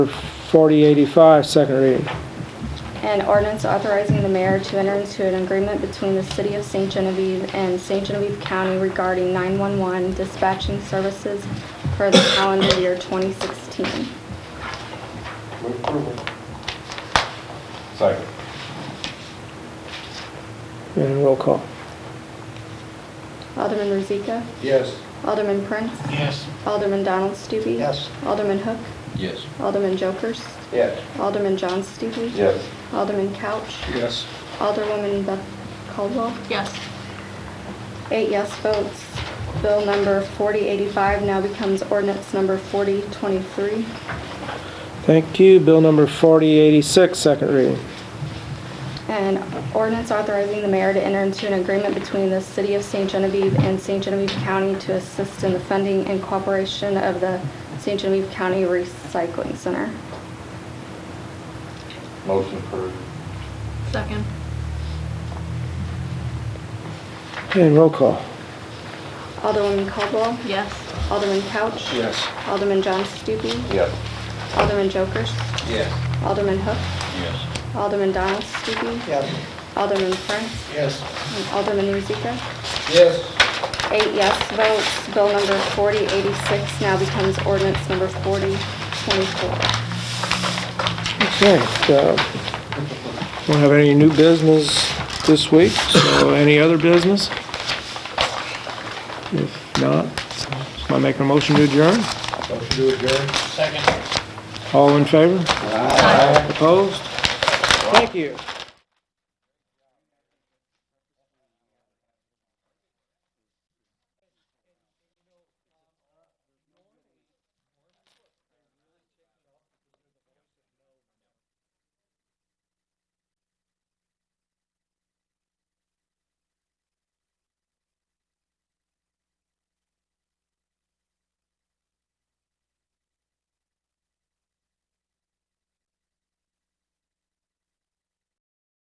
4085, second reading. An ordinance authorizing the mayor to enter into an agreement between the City of St. Genevieve and St. Genevieve County regarding 911 dispatching services for the calendar year 2016. Move approval. Second. And roll call. Alderman Rozika? Yes. Alderman Prince? Yes. Alderman Donald Stevie? Yes. Alderman Hook? Yes. Alderman Jokers? Yes. Alderman John Stevie? Yes. Alderman Couch? Yes. Alderwoman Beth Caldwell? Yes. Eight yes votes. Bill number 4085 now becomes ordinance number 4023. Thank you. Bill number 4086, second reading. An ordinance authorizing the mayor to enter into an agreement between the City of St. Genevieve and St. Genevieve County to assist in the funding and cooperation of the St. Genevieve County Recycling Center. Motion approved. Second. And roll call. Alderwoman Caldwell, Yes. Alderman Couch. Yes. Alderman John Stupi, Yes. Alderman Jokers, Yes. Alderman Hook, Yes. Alderman Donald Stupi, Yes. Alderman Prince, Yes. and Alderman Rozika. Yes. Eight yes votes. Bill number 4086 now becomes ordinance number 4024. Okay, uh, we don't have any new business this week, so any other business? If not, am I making a motion to adjourn? Motion to adjourn. Second. All in favor? Opposed? Thank you.